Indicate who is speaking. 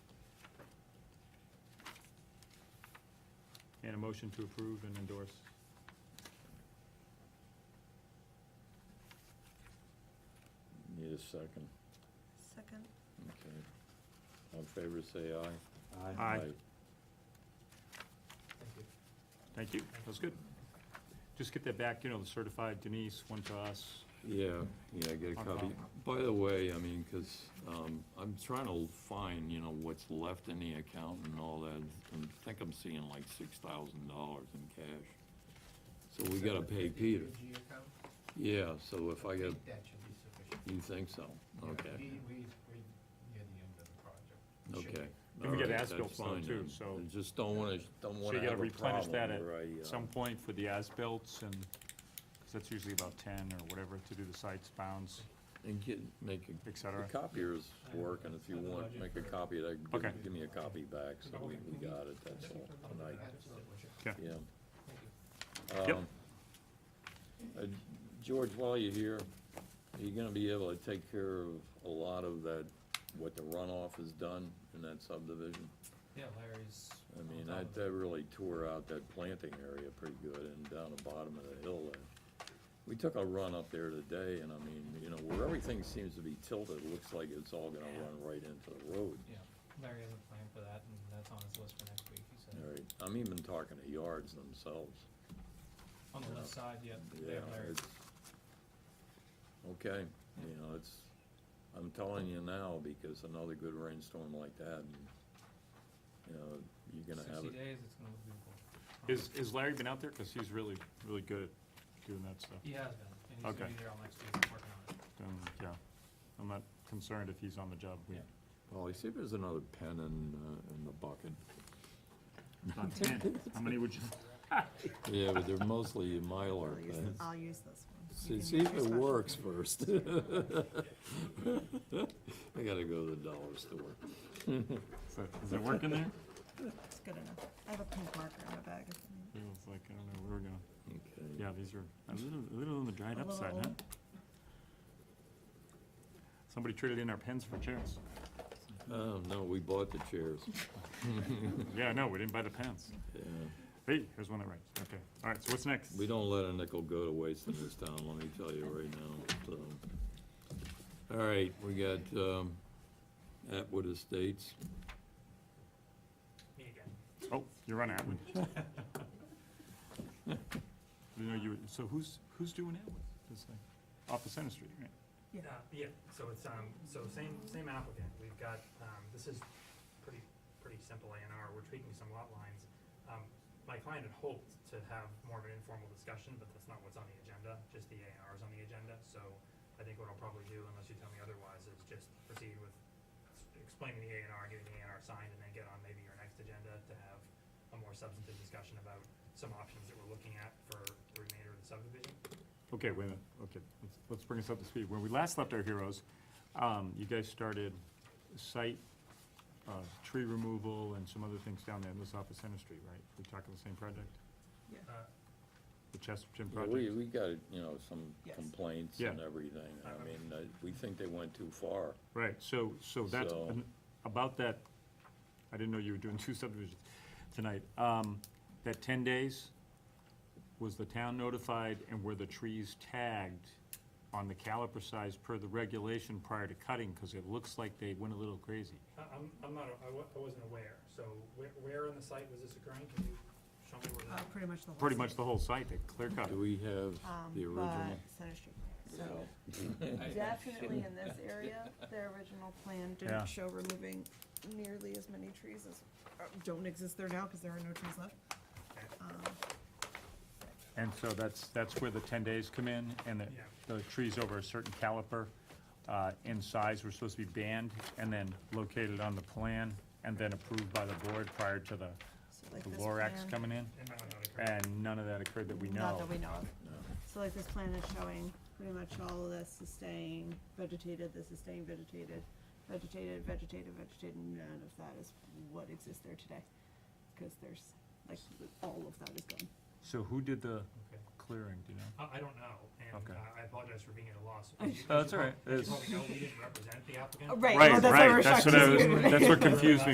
Speaker 1: And a motion to approve and endorse.
Speaker 2: Need a second,
Speaker 3: Second.
Speaker 2: okay. All in favor, say aye.
Speaker 1: Aye. Thank you, that was good. Just get that back, you know, the certified Denise, one to us.
Speaker 2: Yeah, yeah, get a
Speaker 1: On
Speaker 2: copy. By the way, I mean, because I'm trying to find, you know, what's left in the account and all that. and I think I'm seeing like six thousand dollars in cash. So we gotta pay Peter.
Speaker 4: G account?
Speaker 2: Yeah, so if I
Speaker 4: I
Speaker 2: get,
Speaker 4: think that should be sufficient.
Speaker 2: you think so? Okay,
Speaker 4: We, we, we're near the end of the project. Should
Speaker 2: okay.
Speaker 1: And we get
Speaker 2: All right,
Speaker 1: as-built
Speaker 2: that's
Speaker 1: bond
Speaker 2: fine
Speaker 1: too,
Speaker 2: then.
Speaker 1: so-
Speaker 2: I Just don't wanna, don't
Speaker 1: So you
Speaker 2: wanna
Speaker 1: gotta
Speaker 2: have a
Speaker 1: replenish
Speaker 2: problem
Speaker 1: that at
Speaker 2: where I, uh,
Speaker 1: some point for the as-bills and, because that's usually about ten or whatever to do the sites, bounds,
Speaker 2: And get, make a
Speaker 1: et cetera.
Speaker 2: The copier's working, if you want, make a copy of that,
Speaker 1: Okay.
Speaker 2: give- give me a copy back, so we, we got it, that's all, tonight,
Speaker 4: That's sufficient.
Speaker 2: yeah.
Speaker 4: Thank you.
Speaker 1: Yep.
Speaker 2: Um, uh, George, while you're here, are you gonna be able to take care of a lot of that, what the runoff has done in that subdivision?
Speaker 5: Yeah, Larry's.
Speaker 2: I
Speaker 5: on
Speaker 2: mean,
Speaker 5: top
Speaker 2: that,
Speaker 5: of it.
Speaker 2: that really tore out that planting area pretty good, and down the bottom of the hill there. We took a run up there today, and I mean, you know, where everything seems to be tilted, it looks like it's all gonna run right into the road.
Speaker 5: Yeah, Larry has a plan for that, and that's on his list for next week, he said.
Speaker 2: All right, I'm even talking to yards themselves,
Speaker 5: On the left side, yeah.
Speaker 2: yeah,
Speaker 5: Larry.
Speaker 2: it's, okay, you know, it's, I'm telling you now, because another good rainstorm like that, and, you know, you're gonna have
Speaker 5: Sixty
Speaker 2: it.
Speaker 5: days, it's gonna look beautiful.
Speaker 1: Is, is Larry been out there? Because he's really, really good at doing that stuff.
Speaker 5: He has been, and he's gonna
Speaker 1: Okay.
Speaker 5: be there all next week, working on it.
Speaker 1: Um, Yeah, I'm not concerned if he's on the job. We-
Speaker 5: Yeah.
Speaker 2: Well, see if there's another pen in, uh, in the bucket.
Speaker 1: On ten, how many would you?
Speaker 2: Yeah, but they're mostly Mylar
Speaker 3: I'll use
Speaker 2: pens.
Speaker 3: this- I'll use this one. You
Speaker 2: See,
Speaker 3: can
Speaker 2: see
Speaker 3: use
Speaker 2: if
Speaker 3: your
Speaker 2: it
Speaker 3: special
Speaker 2: works
Speaker 3: one.
Speaker 2: first. I gotta go to the dollar store.
Speaker 1: Is that- Is that working there?
Speaker 3: It's good enough. I have a pink marker in my bag. if you need.
Speaker 1: It was like, I don't know, we were going,
Speaker 2: Okay.
Speaker 1: yeah, these are a little, a little on the dried
Speaker 3: A
Speaker 1: up
Speaker 3: little
Speaker 1: side, huh?
Speaker 3: old.
Speaker 1: Somebody traded in our pens for chairs.
Speaker 2: Oh, no, we bought the chairs.
Speaker 1: Yeah, no, we didn't buy the pens.
Speaker 2: Yeah.
Speaker 1: Hey, here's one that writes. Okay, all right, so what's next?
Speaker 2: We don't let a nickel go to waste in this town, let me tell you right now, so. All right, we got, um, Atwood Estates.
Speaker 5: Me again.
Speaker 1: Oh, you're on Atwood. You know, you, so who's, who's doing Atwood? This thing? Off the Center Street, right?
Speaker 3: Yeah.
Speaker 6: Uh, Yeah, so it's, um, so same, same applicant, we've got, um, this is pretty, pretty simple A and R, we're tweaking some lot lines. Um, my client had hoped to have more of an informal discussion, but that's not what's on the agenda, just the A and R is on the agenda, so I think what I'll probably do, unless you tell me otherwise, is just proceed with s- explaining the A and R, getting the A and R signed, and then get on maybe your next agenda to have a more substantive discussion about some options that we're looking at for the remainder of the subdivision.
Speaker 1: Okay, wait a minute, okay, let's, let's bring us up to speed. When we last left our heroes, um, you guys started site, uh, tree removal and some other things down there in this office Center Street, right? We talking the same project,
Speaker 6: Uh,
Speaker 1: the Chesterton
Speaker 2: Yeah, We,
Speaker 1: project?
Speaker 2: we got, you know, some
Speaker 3: Yes.
Speaker 2: complaints
Speaker 1: Yeah.
Speaker 2: and everything, I mean, uh, we think they went too far.
Speaker 1: Right, so, so that's,
Speaker 2: So-
Speaker 1: an- about that, I didn't know you were doing two subdivisions tonight. Um, that ten days, was the town notified and were the trees tagged on the caliper size per the regulation prior to cutting? Cause it looks like they went a little crazy.
Speaker 6: I- I'm, I'm not, I wa- I wasn't aware, so where, where on the site was this occurring? Can you show me where
Speaker 3: Uh,
Speaker 6: that?
Speaker 3: pretty much the whole.
Speaker 1: Pretty much
Speaker 3: thing.
Speaker 1: the whole site, they clear cut.
Speaker 2: Do we have
Speaker 3: Um,
Speaker 2: the original?
Speaker 3: but Center Street. So definitely in this area, their original plan
Speaker 1: Yeah.
Speaker 3: didn't show removing nearly as many trees as, uh, don't exist there now because there are no trees left. Um,
Speaker 1: And so that's, that's where the ten days come in, and
Speaker 6: Yeah.
Speaker 1: the, the trees over a certain caliper, uh, in size were supposed to be banned, and then located on the plan, and then approved by the board prior to the
Speaker 3: So like
Speaker 1: the
Speaker 3: this
Speaker 1: Lorax
Speaker 3: plan-
Speaker 1: coming in,
Speaker 6: And that would not occur.
Speaker 1: and none of that occurred that we
Speaker 3: Not
Speaker 1: know.
Speaker 3: that we know of.
Speaker 2: No.
Speaker 3: So like this plan is showing, pretty much all of this is staying vegetated, this is staying vegetated, vegetated, vegetated, vegetated, none of that is what exists there today. Cause there's, like, all of that is gone.
Speaker 1: So who did the
Speaker 6: Okay.
Speaker 1: clearing, do you know?
Speaker 6: I, I don't know, and
Speaker 1: Okay.
Speaker 6: I I apologize for being at a loss.
Speaker 3: Oh,
Speaker 6: As you-
Speaker 1: that's
Speaker 6: as you
Speaker 1: all right.
Speaker 6: prob- As
Speaker 1: It's-
Speaker 6: you probably know, we didn't represent the applicant.
Speaker 3: Oh, right. Right, well, that's why we're shocked
Speaker 1: what I
Speaker 3: to
Speaker 1: was-
Speaker 3: see it.
Speaker 1: That's what confused me